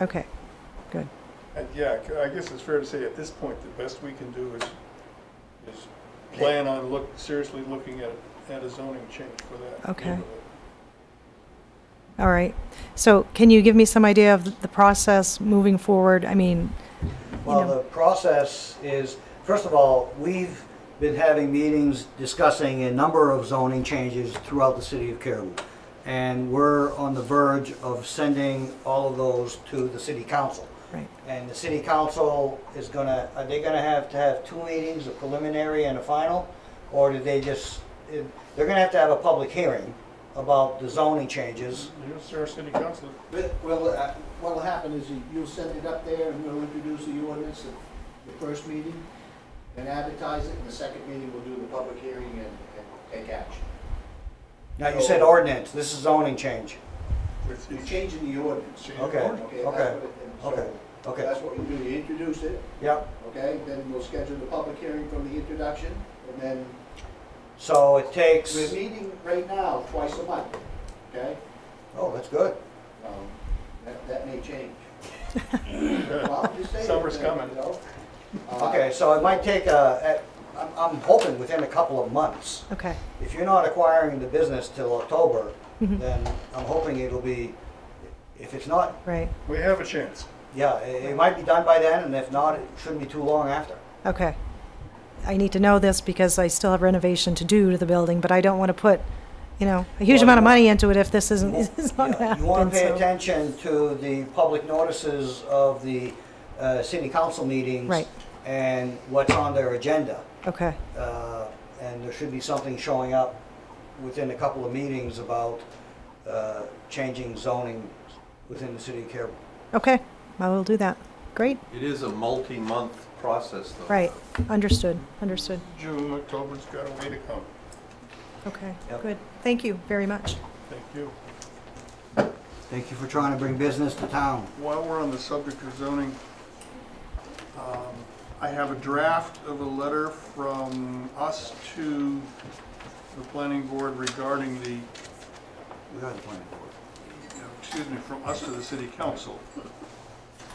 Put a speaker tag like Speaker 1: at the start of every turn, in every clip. Speaker 1: Okay, good.
Speaker 2: And yeah, c- I guess it's fair to say at this point, the best we can do is, is plan on look, seriously looking at, at a zoning change for that.
Speaker 1: Okay.
Speaker 2: neighborhood.
Speaker 1: All right. So can you give me some idea of th- the process moving forward? I mean,
Speaker 3: Well,
Speaker 1: know.
Speaker 3: the process is, first of all, we've been having meetings discussing a number of zoning changes throughout the city of Caribou. And we're on the verge of sending all of those to the city council.
Speaker 1: right,
Speaker 3: And the city council is gonna, are they gonna have to have two meetings, a preliminary and a final? Or do they just, they're gonna have to have a public hearing about the zoning changes?
Speaker 2: Here's our city council.
Speaker 4: But, well, uh, what'll happen is you- you'll send it up there and we'll introduce the ordinance at the first meeting and advertise it, and the second meeting we'll do the public hearing and, and take action.
Speaker 3: Now, you said ordinance, this is zoning change.
Speaker 2: It's-
Speaker 4: You're
Speaker 2: it's-
Speaker 4: changing the ordinance.
Speaker 2: Change the
Speaker 3: Okay,
Speaker 2: ordinance.
Speaker 4: Okay, that's
Speaker 3: okay,
Speaker 4: what it- and so
Speaker 3: okay, okay,
Speaker 4: That's what we do, you introduce it,
Speaker 3: yep.
Speaker 4: okay, then we'll schedule the public hearing from the introduction, and then
Speaker 3: So it takes,
Speaker 4: we're meeting right now twice a month, okay?
Speaker 3: oh, that's good.
Speaker 4: Um, That, that may change. Well, I'm just saying,
Speaker 2: Summer's
Speaker 4: you know,
Speaker 2: coming.
Speaker 4: uh,
Speaker 3: Okay, so it might take, uh, at- I'm, I'm hoping within a couple of months.
Speaker 1: okay.
Speaker 3: If you're not acquiring the business till October,
Speaker 1: Mhm.
Speaker 3: then I'm hoping it'll be, if it's not,
Speaker 1: Right,
Speaker 2: We have a chance.
Speaker 3: yeah, it, it might be done by then, and if not, it shouldn't be too long after.
Speaker 1: okay. I need to know this because I still have renovation to do to the building, but I don't want to put, you know, a huge
Speaker 3: Well,
Speaker 1: amount of
Speaker 3: you-
Speaker 1: money into it if this isn't, is not
Speaker 3: Yeah, You wanna
Speaker 1: happening,
Speaker 3: pay
Speaker 1: so-
Speaker 3: attention to the public notices of the, uh, city council meetings.
Speaker 1: Right.
Speaker 3: And what's on their agenda.
Speaker 1: Okay,
Speaker 3: uh, and there should be something showing up within a couple of meetings about uh, changing zoning within the city of Caribou.
Speaker 1: okay. I will do that. Great,
Speaker 5: It is a multi-month process, though.
Speaker 1: right. Understood, understood.
Speaker 2: June, October's got a way to come.
Speaker 1: Okay,
Speaker 3: Yep.
Speaker 1: good. Thank you very much.
Speaker 2: Thank you.
Speaker 3: Thank you for trying to bring business to town.
Speaker 2: While we're on the subject of zoning, um, I have a draft of a letter from us to the planning board regarding the
Speaker 3: We are the planning board.
Speaker 2: you know, excuse me, from us to the city council,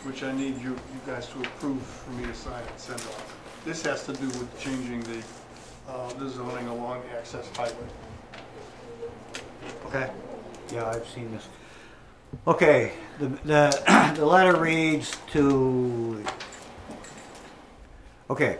Speaker 2: which I need you, you guys to approve for me to sign and send off. This has to do with changing the, uh, the zoning along access highway.
Speaker 3: Okay. Yeah, I've seen this. Okay, the, the, the letter reads to, okay.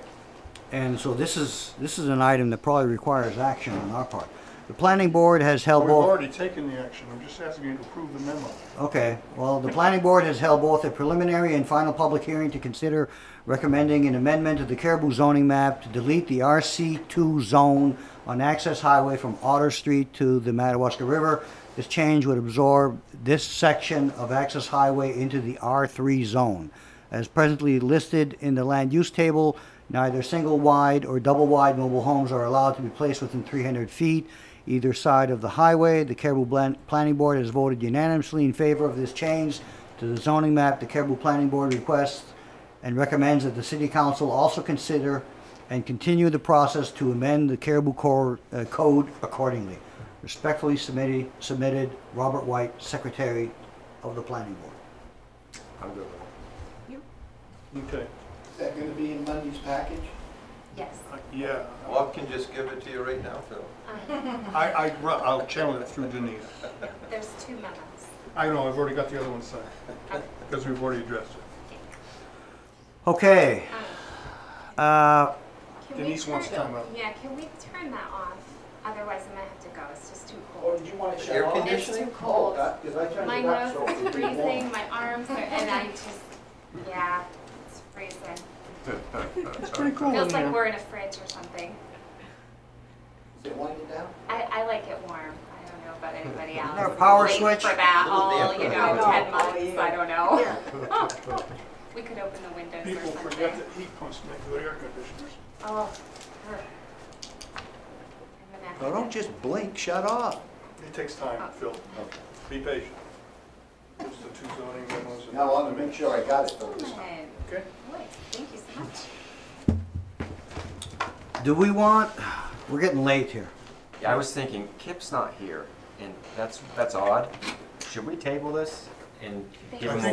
Speaker 3: And so this is, this is an item that probably requires action on our part. The planning board has held
Speaker 2: We've
Speaker 3: both.
Speaker 2: already taken the action, I'm just asking you to approve the memo.
Speaker 3: Okay, well, the planning board has held both a preliminary and final public hearing to consider recommending an amendment to the Caribou zoning map to delete the RC2 zone on Access Highway from Otter Street to the Madawaska River. This change would absorb this section of Access Highway into the R3 zone. As presently listed in the land use table, neither single wide or double wide mobile homes are allowed to be placed within 300 feet either side of the highway. The Caribou Plan- Planning Board has voted unanimously in favor of this change to the zoning map. The Caribou Planning Board requests and recommends that the City Council also consider and continue the process to amend the Caribou Cor- uh, Code accordingly. Respectfully submitted, submitted, Robert White, Secretary of the Planning Board.
Speaker 2: I'm good
Speaker 6: You?
Speaker 2: Okay,
Speaker 4: Is that gonna be in Monday's package?
Speaker 6: Yes.
Speaker 2: Uh, yeah,
Speaker 5: Bob can just give it to you right now, Phil.
Speaker 6: Um,
Speaker 2: I, I, ru- I'll channel it through Denise.
Speaker 6: There's two memos.
Speaker 2: I know, I've already got the other one signed, because we've already addressed it.
Speaker 3: Okay,
Speaker 6: Um,
Speaker 3: uh,
Speaker 6: can we
Speaker 2: Denise wants to
Speaker 6: turn-
Speaker 2: come up.
Speaker 6: Yeah, can we turn that off? Otherwise, I'm gonna have to go. It's just too
Speaker 4: Or
Speaker 6: cold.
Speaker 4: Oh, did you want it shut
Speaker 5: Air
Speaker 4: off?
Speaker 5: conditioning?
Speaker 6: It's too cold.
Speaker 4: Because Oh, uh, I turned
Speaker 6: My
Speaker 4: it up so
Speaker 6: nose
Speaker 4: it
Speaker 6: is
Speaker 4: would be warm.
Speaker 6: freezing, my arms are, and I just, yeah, it's freezing.
Speaker 2: It's pretty cool in
Speaker 6: Feels like
Speaker 2: there.
Speaker 6: we're in a fridge or something.
Speaker 4: Is it winding down?
Speaker 6: I, I like it warm. I don't know about anybody else.
Speaker 3: there a power
Speaker 6: Late
Speaker 3: switch?
Speaker 6: For that
Speaker 5: Little
Speaker 6: whole,
Speaker 5: damper.
Speaker 6: you
Speaker 5: I
Speaker 6: know,
Speaker 5: know,
Speaker 6: ten months, I don't know. We could open the windows
Speaker 2: People
Speaker 6: or
Speaker 2: forget
Speaker 6: something.
Speaker 2: that heat pumps make good air conditioners.
Speaker 6: Oh. ugh. I'm gonna have to
Speaker 3: just blink, shut off.
Speaker 2: It takes time, Phil. Be patient. It's the two zoning memos. and-
Speaker 4: Now, I want to make sure I got it though this time.
Speaker 6: Excellent.
Speaker 2: Okay.
Speaker 6: Boy, thank you so much.
Speaker 3: Do we want, we're getting late here.
Speaker 7: Yeah, I was thinking, Kip's not here, and that's, that's odd. Should we table this and give
Speaker 2: I
Speaker 7: him a
Speaker 2: think